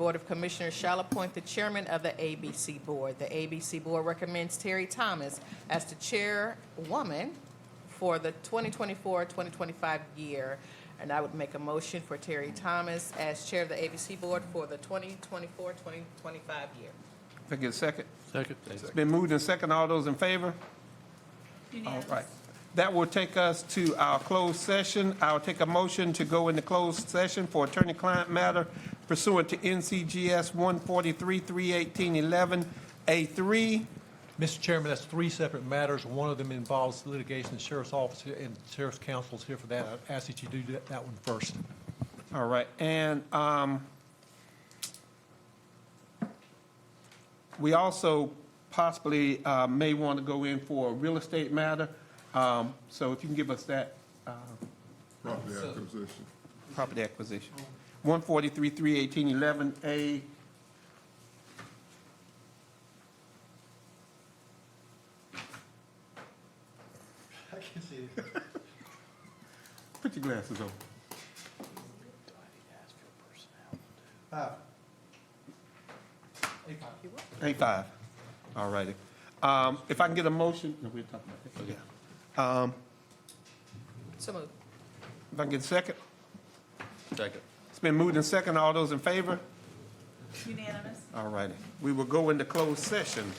Board of Commissioners shall appoint the chairman of the ABC Board. The ABC Board recommends Terry Thomas as the chairwoman for the 2024-2025 year. And I would make a motion for Terry Thomas as chair of the ABC Board for the 2024-2025 year. Can I get a second? Second. It's been moved and second. All those in favor? All right. That will take us to our closed session. I'll take a motion to go into closed session for attorney-client matter pursuant to NCGS 143-318-11A3. Mr. Chairman, that's three separate matters. One of them involves litigation, the sheriff's office and sheriff's counsel is here for that. I ask that you do that- that one first. All right, and um, we also possibly uh, may want to go in for a real estate matter. Um, So if you can give us that uh, Property acquisition. property acquisition. 143, 318, 11A. Put your glasses on. A five. All righty. Um, If I can get a motion, no, we're talking about that. Yeah. Um, So moved. If I can get a second? Second. It's been moved and second. All those in favor? Unanimous? All righty. We will go into closed session.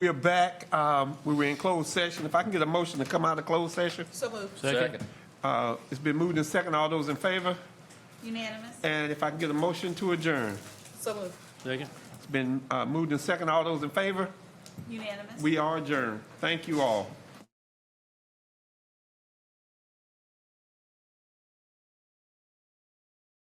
We are back. Um, We were in closed session. If I can get a motion to come out of closed session. So moved. Second. Uh, It's been moved and second. All those in favor? Unanimous? And if I can get a motion to adjourn. So moved. Second. It's been uh, moved and second. All those in favor? Unanimous? We are adjourned. Thank you all.